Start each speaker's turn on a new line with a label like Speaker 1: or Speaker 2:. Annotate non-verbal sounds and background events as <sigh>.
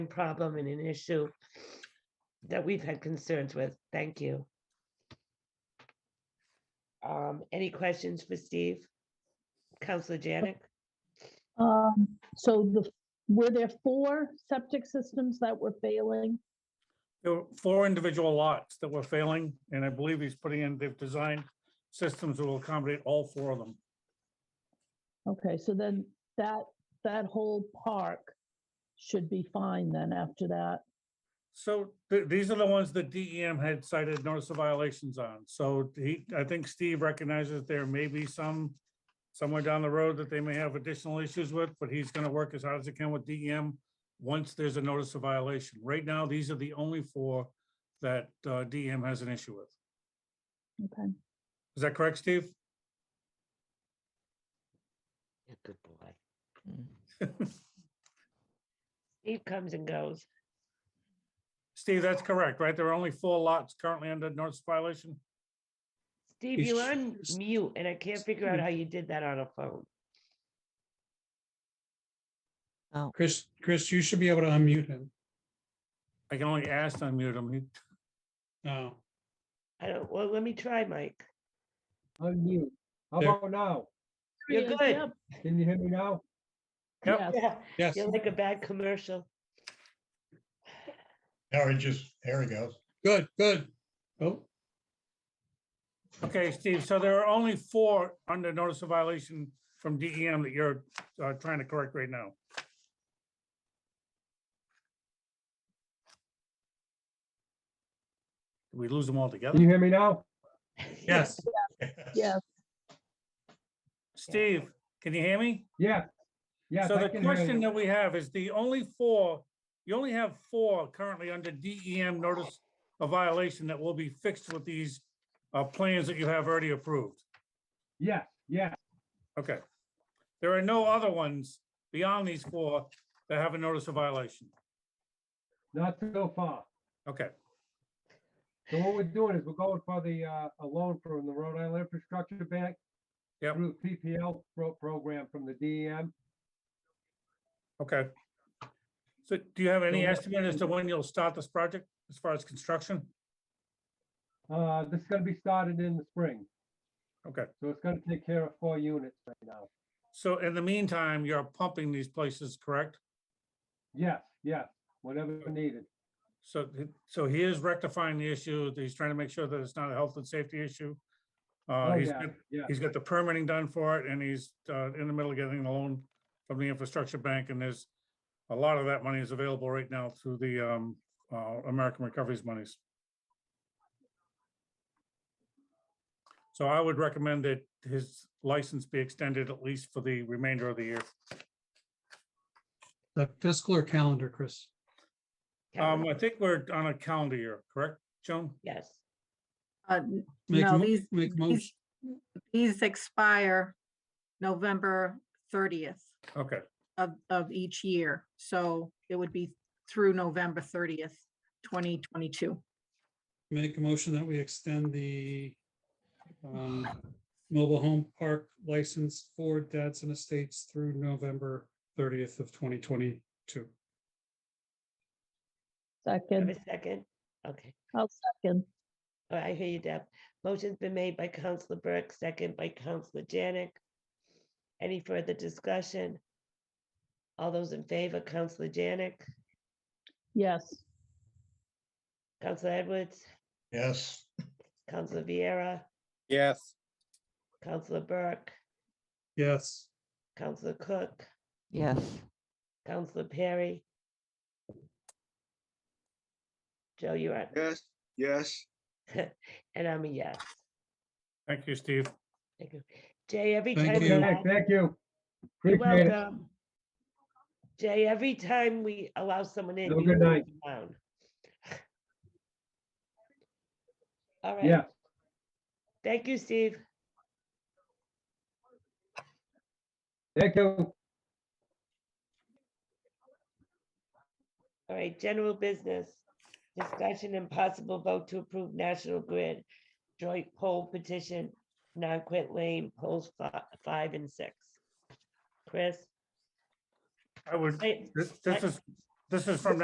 Speaker 1: problem and an issue that we've had concerns with. Thank you. Um, any questions for Steve? Counselor Janik?
Speaker 2: Um, so the, were there four septic systems that were failing?
Speaker 3: There were four individual lots that were failing, and I believe he's putting in, they've designed systems that will accommodate all four of them.
Speaker 2: Okay, so then that, that whole park should be fine then after that.
Speaker 3: So th- these are the ones that DEM had cited notice of violations on. So he, I think Steve recognizes there may be some somewhere down the road that they may have additional issues with, but he's gonna work as hard as he can with DEM once there's a notice of violation. Right now, these are the only four that uh, DEM has an issue with.
Speaker 2: Okay,
Speaker 3: Is that correct, Steve?
Speaker 1: Yeah, Good boy. <laughs> Steve comes and goes.
Speaker 3: Steve, that's correct, right? There are only four lots currently under notice of violation?
Speaker 1: Steve,
Speaker 3: He's-
Speaker 1: you're on mute and I can't figure out how you did that on a phone.
Speaker 4: Chris, Chris, you should be able to unmute him.
Speaker 3: I can only ask to unmute him. He-
Speaker 4: No,
Speaker 1: I don't, well, let me try, Mike.
Speaker 5: Unmute. How
Speaker 4: There.
Speaker 5: about now?
Speaker 1: You're
Speaker 2: Yeah,
Speaker 1: good.
Speaker 2: yep,
Speaker 5: Can you hear me now?
Speaker 3: Yep.
Speaker 2: yes.
Speaker 1: Yeah,
Speaker 4: yes,
Speaker 1: you're like a bad commercial. <laughs>
Speaker 6: Now it just, there he goes.
Speaker 4: good, good. Oh,
Speaker 3: Okay, Steve, so there are only four under notice of violation from DEM that you're uh, trying to correct right now. Did we lose them all together?
Speaker 5: Can you hear me now?
Speaker 4: yes,
Speaker 2: Yes,
Speaker 3: Steve, can you hear me?
Speaker 5: Yeah. Yeah.
Speaker 3: So the question that we have is the only four, you only have four currently under DEM notice of violation that will be fixed with these uh, plans that you have already approved.
Speaker 5: Yeah, yeah.
Speaker 3: Okay. There are no other ones beyond these four that have a notice of violation.
Speaker 5: Not so far.
Speaker 3: Okay,
Speaker 5: So what we're doing is we're going for the, uh, a loan from the Rhode Island Infrastructure Bank.
Speaker 3: Yep.
Speaker 5: Through the PPL pro- program from the E DEM.
Speaker 3: okay. So do you have any
Speaker 5: So-
Speaker 3: estimate as to when you'll start this project as far as construction?
Speaker 5: Uh, this is gonna be started in the spring,
Speaker 3: Okay,
Speaker 5: so it's gonna take care of four units right now.
Speaker 3: so in the meantime, you're pumping these places, correct?
Speaker 5: Yes, yes, whenever needed.
Speaker 3: So, th- so he is rectifying the issue. He's trying to make sure that it's not a health and safety issue. Uh,
Speaker 5: Oh,
Speaker 3: he's,
Speaker 5: yeah,
Speaker 3: got-
Speaker 5: yeah,
Speaker 3: he's got the permitting done for it and he's, uh, in the middle of getting the loan from the infrastructure bank and there's a lot of that money is available right now through the, um, uh, American Recoveries monies. So I would recommend that his license be extended at least for the remainder of the year.
Speaker 4: the fiscal or calendar, Chris.
Speaker 3: Um, I think we're on a calendar year, correct, Joan?
Speaker 1: Yes,
Speaker 7: Uh, n-
Speaker 4: Make
Speaker 7: No,
Speaker 4: mo-
Speaker 7: these-
Speaker 4: Make motion,
Speaker 7: these, these expire November thirtieth
Speaker 3: Okay.
Speaker 7: of, of each year. So it would be through November thirtieth, twenty twenty-two.
Speaker 4: make a motion that we extend the um, mobile home park license for Dadson Estates through November thirtieth of twenty twenty-two.
Speaker 1: have
Speaker 2: second,
Speaker 1: a second. Okay,
Speaker 2: I'll second.
Speaker 1: All right, Oh, I hear you, Deb. Motion's been made by Counselor Burke, second by Counselor Janik. Any further discussion? All those in favor, Counselor Janik,
Speaker 2: Yes,
Speaker 1: Counselor Edwards,
Speaker 6: Yes,
Speaker 1: Counselor Vieira,
Speaker 8: Yes,
Speaker 1: Counselor Burke,
Speaker 4: Yes,
Speaker 1: Counselor Cook,
Speaker 9: Yes,
Speaker 1: Counselor Perry. Joe, you're up,
Speaker 8: yes, yes.
Speaker 1: and I'm a yes.
Speaker 3: Thank you, Steve.
Speaker 1: Thank you. Jay, every
Speaker 4: Thank
Speaker 1: time.
Speaker 4: you.
Speaker 1: you're
Speaker 5: Okay,
Speaker 1: on-
Speaker 5: thank you.
Speaker 1: You're
Speaker 5: Appreciate it.
Speaker 1: welcome. Jay, every time we allow someone in.
Speaker 5: Have a
Speaker 1: you
Speaker 5: good
Speaker 1: go
Speaker 5: night.
Speaker 1: down. <sighs> All
Speaker 5: Yeah.
Speaker 1: right. Thank you, Steve.
Speaker 5: Thank you.
Speaker 1: All right, general business. Discussion and possible vote to approve National Grid joint poll petition, non-quit lane polls fi- five and six. Chris?
Speaker 3: I would,
Speaker 1: Wait,
Speaker 3: this this is, this is from